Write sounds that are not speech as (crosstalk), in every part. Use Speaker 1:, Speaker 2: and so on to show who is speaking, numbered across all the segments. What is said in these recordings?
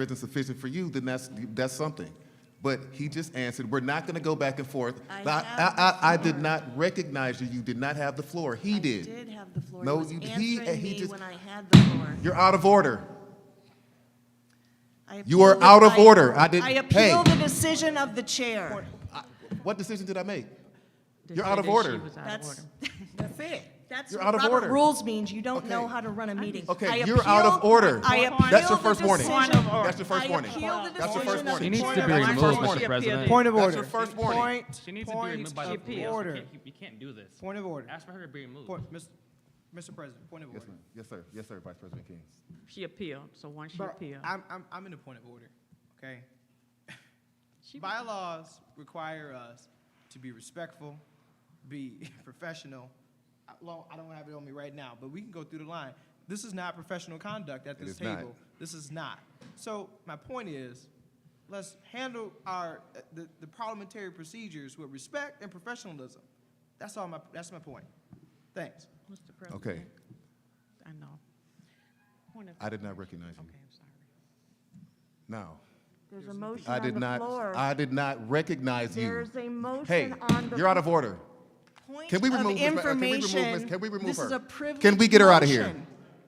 Speaker 1: isn't sufficient for you, then that's, that's something. But he just answered, we're not gonna go back and forth.
Speaker 2: I
Speaker 1: But
Speaker 2: have the
Speaker 1: I, I, I did
Speaker 2: floor.
Speaker 1: not recognize you, you did not have the floor, he
Speaker 2: I did
Speaker 1: did.
Speaker 2: have the floor.
Speaker 1: No,
Speaker 2: he
Speaker 1: you-
Speaker 2: was
Speaker 1: he-
Speaker 2: answering
Speaker 1: he
Speaker 2: me
Speaker 1: just-
Speaker 2: when I had the floor.
Speaker 1: You're out of order.
Speaker 2: I
Speaker 1: You are
Speaker 2: appeal the-
Speaker 1: out of
Speaker 2: I-
Speaker 1: order. I didn't-
Speaker 2: I
Speaker 1: hey.
Speaker 2: appeal the decision of the chair.
Speaker 1: I- What decision did I make?
Speaker 3: to
Speaker 1: You're
Speaker 3: say
Speaker 1: out of
Speaker 3: that she
Speaker 1: order.
Speaker 3: was out of
Speaker 2: That's,
Speaker 3: order.
Speaker 2: (laughs) that's it. That's
Speaker 1: You're
Speaker 2: what
Speaker 1: out of
Speaker 2: Robert
Speaker 1: order.
Speaker 2: Rules means you don't know
Speaker 1: Okay.
Speaker 2: how to run a meeting.
Speaker 1: Okay,
Speaker 2: I
Speaker 1: you're out of
Speaker 2: appeal-
Speaker 1: order.
Speaker 2: I appeal
Speaker 1: That's your
Speaker 2: the
Speaker 1: first warning.
Speaker 2: decision.
Speaker 3: Point of order.
Speaker 1: That's your
Speaker 2: I
Speaker 1: first warning.
Speaker 2: appeal the
Speaker 1: That's your first
Speaker 2: decision of
Speaker 1: warning.
Speaker 2: the
Speaker 4: She needs
Speaker 2: point
Speaker 4: to
Speaker 2: of
Speaker 4: be
Speaker 2: order.
Speaker 4: removed,
Speaker 5: Point
Speaker 4: Mr.
Speaker 5: of
Speaker 4: President.
Speaker 6: Point of
Speaker 1: That's
Speaker 6: order.
Speaker 1: your first warning.
Speaker 6: Point,
Speaker 4: She needs to be
Speaker 6: point
Speaker 4: removed by the
Speaker 6: of
Speaker 3: appeal.
Speaker 4: floor. You
Speaker 6: order.
Speaker 4: can't- You can't do this.
Speaker 6: Point of order.
Speaker 4: Ask for her to be removed.
Speaker 6: Point- Mis- Mr. President, point of
Speaker 1: Yes,
Speaker 6: order.
Speaker 1: ma'am. Yes, sir, yes, sir, Vice President King.
Speaker 3: She appealed, so once she
Speaker 6: Bro,
Speaker 3: appealed,
Speaker 6: I'm, I'm, I'm in a point of order, okay?
Speaker 3: She-
Speaker 6: Bylaws require us to be respectful, be (laughs) professional. I- Well, I don't have it on me right now, but we can go through the line. This is not professional conduct at
Speaker 1: It
Speaker 6: this
Speaker 1: is not.
Speaker 6: table. This is not. So my point is, let's handle our, uh, the, the parliamentary procedures with respect and professionalism. That's all my, that's my point. Thanks.
Speaker 3: Mr. President.
Speaker 1: Okay,
Speaker 3: I know. Point of,
Speaker 1: I did not recognize you.
Speaker 3: okay, I'm sorry.
Speaker 1: No,
Speaker 2: There's a motion
Speaker 1: I did
Speaker 2: on the
Speaker 1: not,
Speaker 2: floor.
Speaker 1: I did not recognize you.
Speaker 2: There's a
Speaker 1: Hey,
Speaker 2: motion on the.
Speaker 1: you're out of order.
Speaker 2: Point
Speaker 1: Can we
Speaker 2: of
Speaker 1: remove, Ms. Ra- can we remove, Ms.
Speaker 2: information.
Speaker 1: can we remove her?
Speaker 2: This is a privileged
Speaker 1: Can we get her out of here?
Speaker 2: motion.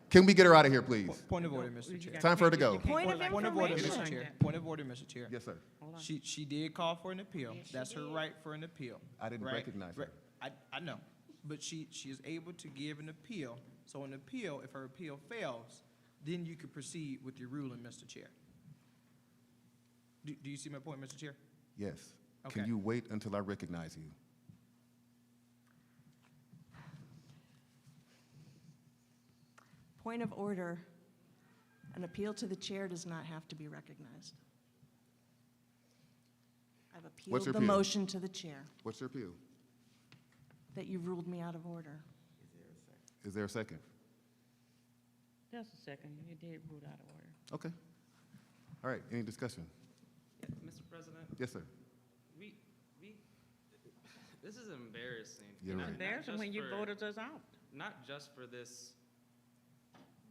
Speaker 1: Can we get her out of here, please?
Speaker 6: Point of order, Mr.
Speaker 3: You
Speaker 6: Chair.
Speaker 3: got-
Speaker 1: Time for her to
Speaker 3: you
Speaker 1: go.
Speaker 3: can't- you can't
Speaker 2: Point
Speaker 3: go
Speaker 2: of
Speaker 3: like
Speaker 6: Point of order,
Speaker 3: that.
Speaker 6: Mr.
Speaker 2: information.
Speaker 6: Chair. Point of order, Mr. Chair.
Speaker 1: Yes, sir.
Speaker 6: She, she did call for an appeal. That's her right for an appeal.
Speaker 1: I didn't
Speaker 6: right?
Speaker 1: recognize her.
Speaker 6: Right. I, I know, but she, she is able to give an appeal. So an appeal, if her appeal fails, then you could proceed with your ruling, Mr. Chair. Do, do you see my point, Mr. Chair?
Speaker 1: Yes. Can
Speaker 6: Okay.
Speaker 1: you wait until I recognize you?
Speaker 2: Point of order. An appeal to the chair does not have to be recognized. I've appealed
Speaker 1: your
Speaker 2: the
Speaker 1: appeal?
Speaker 2: motion to the chair
Speaker 1: What's your appeal?
Speaker 2: that you've ruled me out of order.
Speaker 1: Is there a second?
Speaker 3: Just a second, you did rule out of order.
Speaker 1: Okay. All right, any discussion?
Speaker 7: Mr. President,
Speaker 1: Yes, sir.
Speaker 7: we, we, this is embarrassing.
Speaker 1: You're
Speaker 7: Not-
Speaker 1: right.
Speaker 7: not
Speaker 3: Embarrassing
Speaker 7: just
Speaker 3: when you
Speaker 7: for-
Speaker 3: voted us out.
Speaker 7: Not just for this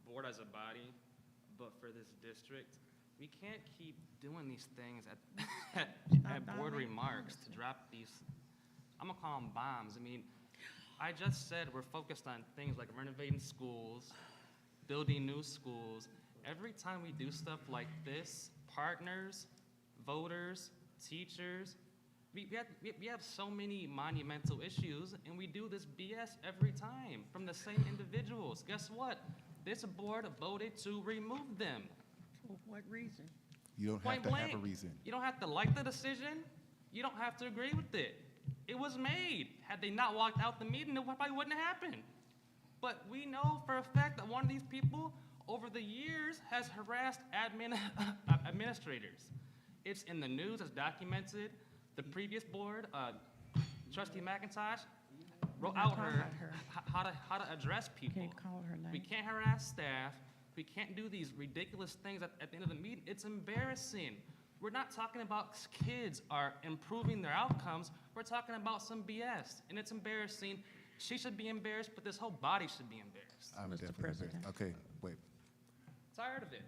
Speaker 7: board as a body, but for this district. We can't keep doing these things at, (laughs) at, at board remarks to drop these, I'm gonna call them bombs. I mean, I just said we're focused on things like renovating schools, building new schools. Every time we do stuff like this, partners, voters, teachers, we, we, have, we, we have so many monumental issues, and we do this BS every time from the same individuals. Guess what? This board voted to remove them.
Speaker 3: For what reason?
Speaker 1: You don't have
Speaker 7: Point
Speaker 1: to have a
Speaker 7: blank.
Speaker 1: reason.
Speaker 7: You don't have to like the decision. You don't have to agree with it. It was made. Had they not walked out the meeting, it probably wouldn't have happened. But we know for a fact that one of these people over the years has harassed admin (laughs) uh, administrators. It's in the news, it's documented. The previous board, uh, trustee McIntosh, wrote out
Speaker 3: talking
Speaker 7: her,
Speaker 3: about her.
Speaker 7: h- how to, how to address people.
Speaker 3: Can't call her
Speaker 7: We
Speaker 3: name.
Speaker 7: can't harass staff. We can't do these ridiculous things at, at the end of the meeting. It's embarrassing. We're not talking about s- kids are improving their outcomes. We're talking about some BS, and it's embarrassing. She should be embarrassed, but this whole body should be embarrassed.
Speaker 1: I'm definitely
Speaker 3: Mr.
Speaker 1: embarrassed.
Speaker 3: President.
Speaker 1: Okay, wait.
Speaker 7: Tired of it.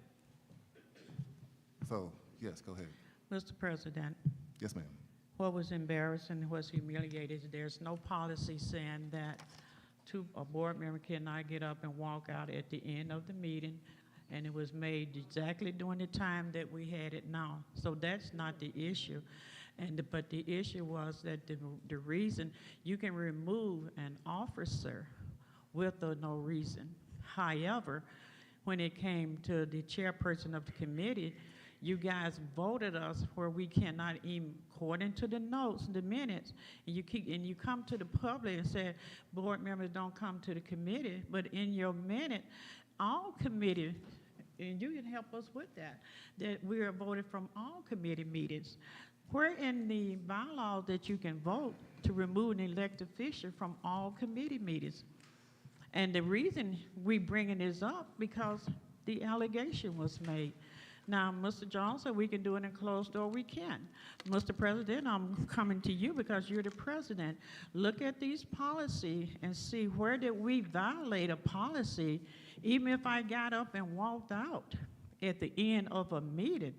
Speaker 1: So, yes, go ahead.
Speaker 3: Mr. President,
Speaker 1: Yes, ma'am.
Speaker 3: what was embarrassing, was humiliated, there's no policy saying that two, a board member cannot get up and walk out at the end of the meeting, and it was made exactly during the time that we had it now. So that's not the issue. And, the- but the issue was that the, the reason, you can remove an officer with or no reason. However, when it came to the chairperson of the committee, you guys voted us where we cannot even, according to the notes, the minutes, and you keep, and you come to the public and say, board members don't come to the committee, but in your minute, all committee, and you can help us with that, that we are voted from all committee meetings. Where in the bylaw that you can vote to remove an elected official from all committee meetings? And the reason we bringing this up, because the allegation was made. Now, Mr. Johnson, we can do it in closed door, we can. Mr. President, I'm coming to you because you're the president. Look at these policy and see where did we violate a policy, even if I got up and walked out? at the end of a meeting.